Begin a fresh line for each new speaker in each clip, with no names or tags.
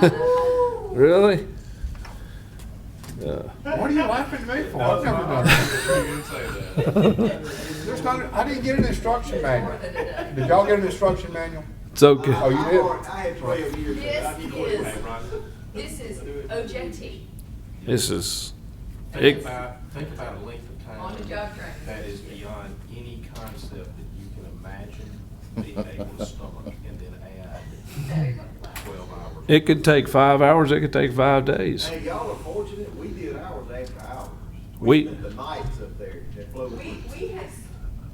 Really? Uh,
What are you laughing at me for? I've never done that. There's not, I didn't get an instruction manual. Did y'all get an instruction manual?
It's okay.
Oh, you did?
I had twelve years. of it.
This
I knew
is,
it.
this is OJT,
This is,
Think
It-
about, think about a length of time.
on the job training.
That is beyond any concept that you can imagine being able to stomach and then add twelve hours.
it could take five hours, it could take five days.
Hey, y'all are fortunate, we did ours after hours.
We-
spent The nights up there that flew.
We, we have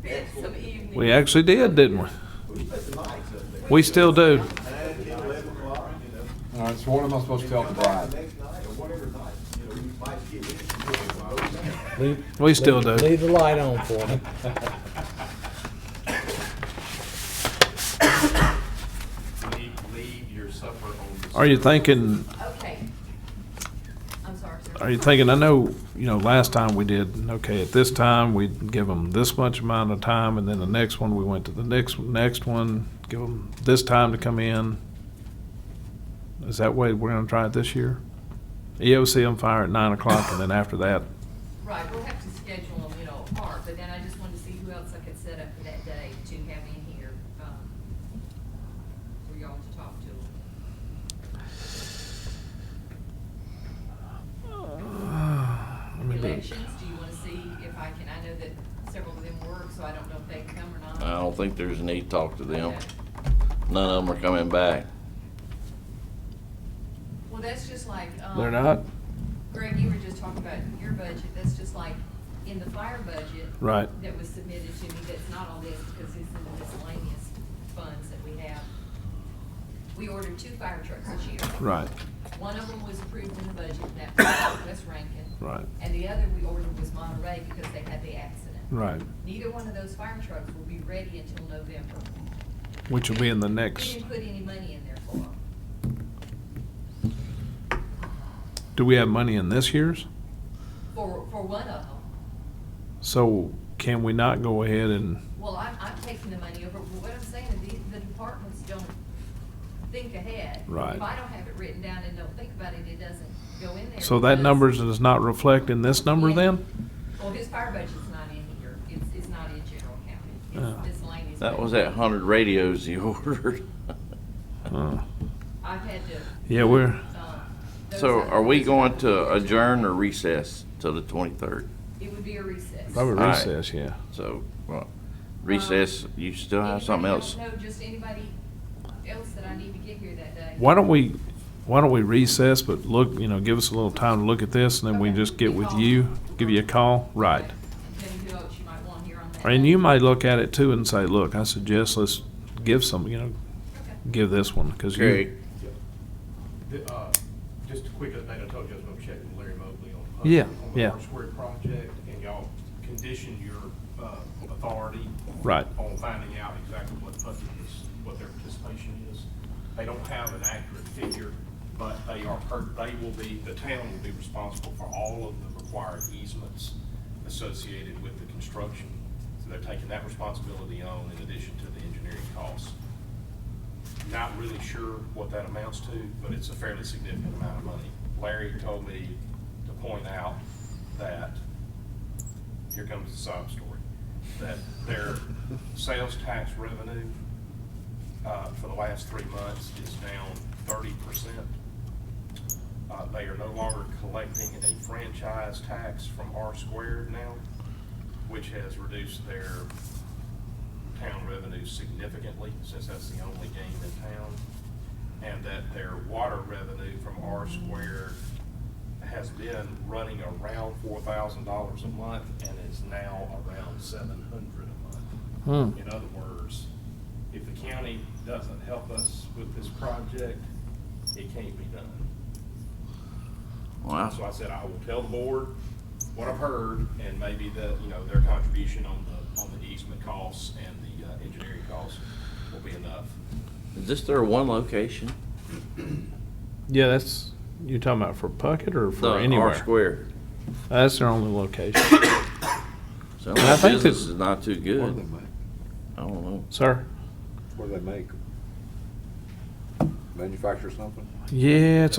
spent some evenings.
We actually did, didn't we?
We spent the nights up there.
We still do.
Nine, ten, eleven o'clock, you know.
All right, so what am I supposed to tell the
Come back
bride?
the next night or whatever night, you know, you might get in. and do it while we're down.
Leave-
We still
leave-
do.
Leave the light on for me.
Leave, leave your supper on the.
Are you
thinking?
thinking,
Okay. I'm sorry, sir.
are you thinking, I know, you know, last time we did, okay, at this time, we'd give them this much amount of time, and then the next one, we went to the next, next one, give them this time to come in. Is that way we're gonna try it this year? E EOC on fire at nine o'clock, and then after that,
Right, we'll have to schedule them, you know, apart, but then I just wanted to see who else I could set up for that day to have in here, um, for y'all to talk to.
let me look.
Elections, do you wanna see if I can, I know that several of them work, so I don't know if they can come or not.
I don't think there's a need to talk to them.
Okay.
None of them are coming back.
Well, that's just like, um.
They're not?
Greg, you were just talking about your budget, that's just like in the fire budget.
Right.
That was submitted to me, that's not on this, because it's in the miscellaneous funds that we have. We ordered two fire trucks this year.
Right,
One of them was approved in the budget, and that was West Rankin.
Right.
And the other we ordered was Monterey because they had the accident.
right,
Neither one of those fire trucks will be ready until November.
which will be in the
We
next,
didn't put any money in there for them.
do we have money in this year's?
For, for one of them.
So can we not go ahead and,
Well, I'm, I'm taking the money over, but what I'm saying is the, the departments don't think ahead.
Right.
If I don't have it written down and don't think about it, it doesn't go in there.
so that
because-
number does not reflect in this number then?
Well, his fire budget's not in here, it's, it's not in general
Oh.
county, it's miscellaneous.
That was
budget.
that hundred radios he ordered.
Uh,
I've had to.
Yeah, we're,
um, those
So
other
are we
ones-
going to adjourn or recess till the twenty-third?
It would be a recess.
probably
All right.
recess, yeah.
So, well, recess, you still have something
Anybody
else?
No, just anybody else that I need to get here that day.
Why don't we, why don't we recess, but look, you know, give us a little time to look at this, and then we
Okay.
just get with
Call.
you, give you a call, right?
Okay. And then who else you might want here on that.
And
day.
you might look at it too and say, look, I suggest let's give some, you know,
Okay.
give this one, because
Gary,
you,
The, uh, Just a quick update, I told you I was gonna check with Larry Mobley on.
Yeah,
On the
yeah.
Harper Square project, and y'all conditioned your uh, authority.
Right.
On finding out exactly what budget is, what their participation is. They don't have an accurate figure, but they are, per- they will be, the town will be responsible for all of the required easements associated with the construction. So they're taking that responsibility on in addition to the engineering costs. Not really sure what that amounts to, but it's a fairly significant amount of money. Larry told me to point out that, here comes the sob story, that their sales tax revenue uh, for the last three months is down thirty percent. Uh, They are no longer collecting a franchise tax from R squared now, which has reduced their town revenue significantly, since that's the only game in town, and that their water revenue from R squared has been running around four thousand dollars a month and is now around seven hundred a month. In other words, if the county doesn't help us with this project, it can't be done. So
wow,
I said, I will tell the board what I've heard, and maybe that, you know, their contribution on the, on the easement costs and the uh, engineering costs will be enough.
is this their one location?
yeah, that's, you talking about for Puckett or
The
for
R
anywhere?
square.
That's their only location.
Sounds
I
like
think
business
that-
is not too
What do they
good.
make?
I don't know.
Sir?
What do they make?
manufacture something?
Yeah, it's